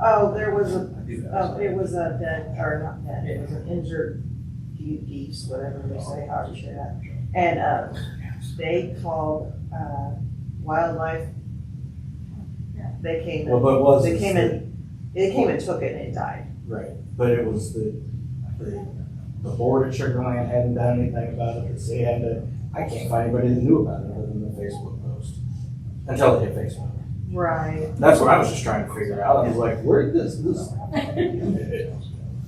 Oh, there was a, I do have uh, some. it was a dead, or not dead, it was an injured ge- geese, whatever they say, how you say that. And, uh, they called, uh, wildlife. They came Well, and, but it was. they came and, they came and took it and it died. Right, but it was the, the, the board at Sugar Land hadn't done anything about it, the city hadn't, done- I can't find anybody that knew about it other than the Facebook post. Until they hit Facebook. Right. That's what I was just trying to figure out, I was like, where did this, this?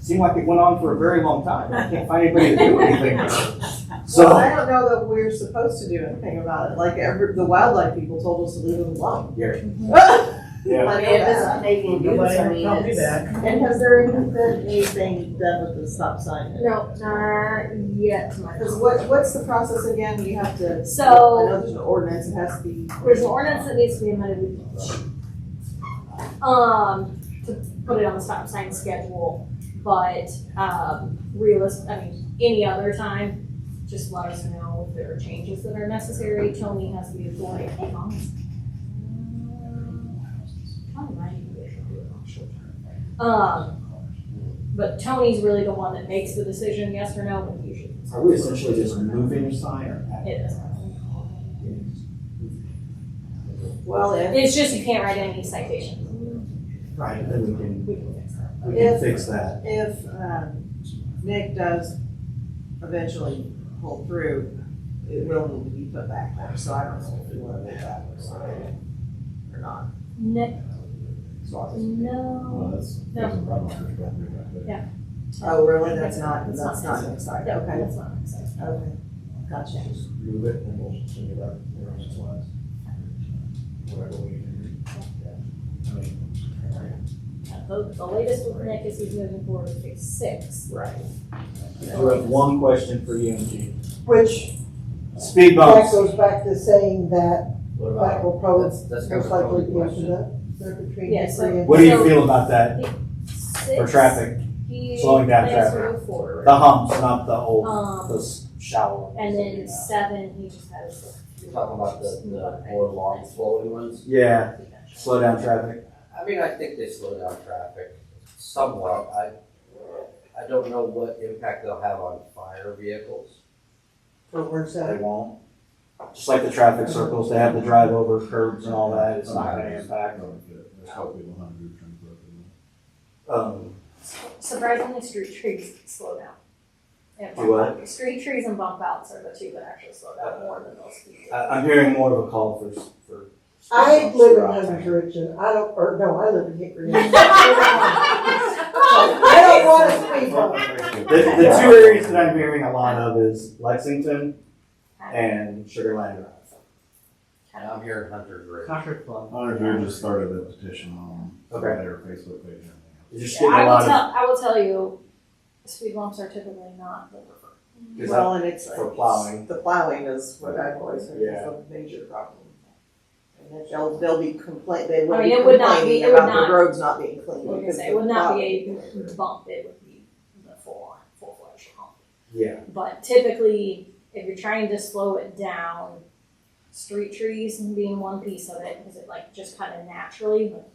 Seemed like it went on for a very long time, I can't find anybody that knew anything about it. Well, So, I don't know that we're supposed to do anything about it, like, every, the wildlife people told us to leave it alone. Gary, But yeah, But it if it's was- not making news, I mean, it's. And has there been anything done with the stop sign? No, not yet. to my Because knowledge. what, what's the process again? You have to. So- I know there's an ordinance, it has to be. There's an ordinance that needs to be amended. Um, to put it on the stop sign schedule, but, um, realist, I mean, any other time, just let us know if there are changes that are necessary. Tony has the authority. Hey, Mom. Probably mine. Um, but Tony's really the one that makes the decision, yes or no, and usually. are we essentially just moving a sign or? It is. Well, if, It's just you can't write any citations. Right, then we can, We can fix that. we can If- fix that. if, um, Nick does eventually pull through, it will need to be put back there, so I don't know if you want to make that work or not. No, So, no. that's, that's a problem. Oh, really? That's not, that's not an exciting, okay, That's not exciting. okay, gotcha. move it and we'll think about it the rest of us. Whatever we can do. I mean, Uh, The, the latest with Nick is he's moving forward with phase six. Right. I do have one question for you, Angie. Which Speed that bumps. goes back to saying that What that about, will probably That's most Oh, likely be after that. They're between Yes, three and- what do you feel about that for Six, traffic? he slowing down plans to traffic. move forward. The humps, not the old, Um, those shallow. ones and that we then have. seven, he just has. You're talking about the, the more long flowing ones? Yeah, slow down traffic. I mean, I think they slow down traffic somewhat. I, I don't know what impact they'll have on fire vehicles. Or where's They that? won't. Just like the traffic circles, they have the drive over curbs and all that. It's not gonna impact. Um, Surprisingly, street trees slow down. And Do what? Uh, bump- Street trees and bump outs are the two that actually slow down more than those. I, I'm hearing more of a call for, for. speed I bumps live in throughout Hunter's town. Ridge and I don't, or no, I live in Hickory. Ridge. I I don't want to speak on it. The, the two areas that I'm hearing a lot of is Lexington and Sugar Land Drive. And I'm here in Hunter's Ridge. Concord Club. Honors, we just started a petition on Okay. their Facebook page. and everything. You're just Yeah, getting a I will lot of, tell, I will tell you, speed bumps are typically not the preferred. because I- Well, and it's. For plowing. The plowing is what I've always heard is Yeah. a major problem. And that they'll, they'll be complain, they I will mean, be it would not be- complaining it would about not- the roads not being cleaned. Like I because say, of it would the not plowing. be a bump, it would be the full on, full fledged hump. yeah, But typically, if you're trying to slow it down, street trees being one piece of it, because it like just kind of naturally like,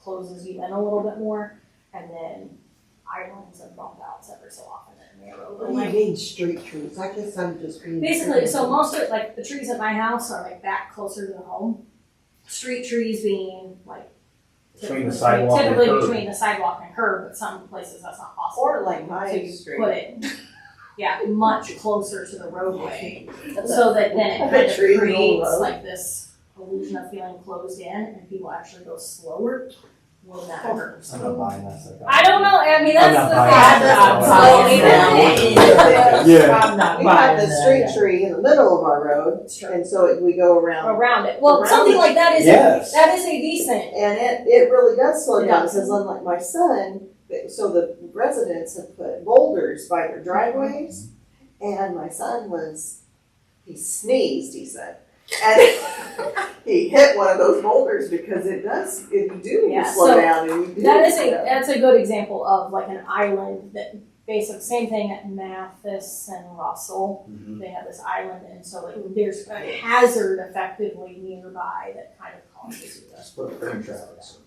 closes you in a little bit more. And then islands and bump outs every so often in the road. What Oh, do you mean street trees? I guess I'm just being. Basically, so most of, like, the trees at my house are like back closer to the home. Street trees being like. Between the sidewalk and Typically curb. between the sidewalk and curb, but some places that's not possible. Or like my So you street. Put it, yeah, much closer to the roadway, That's so that then I it bet kind of trees will creates grow. like this illusion of feeling closed in and people actually go slower. Will that Oh. hurt? I'm not buying that stuff. I don't know, I mean, I'm that's not the buying thing. that. That's the I'm problem. Yeah, I'm not We have buying the that. street tree in the middle of our road, It's true. and so it- we go around, Around it, well, Around something it. like that is, Yes. that is a decent and it, it really does slow down, Yeah. because unlike my son, th- so the residents have put boulders by their driveways, and my son was, he sneezed, he said, and he hit one of those boulders because it does, it do need to Yeah, slow so down, and you do. That is a slow down. that's a good example of like an island that basic same thing at Mathis and Russell. Mhm. They have this island and so like there's a hazard effectively nearby that kind of causes you to Just put a frame traffic circle.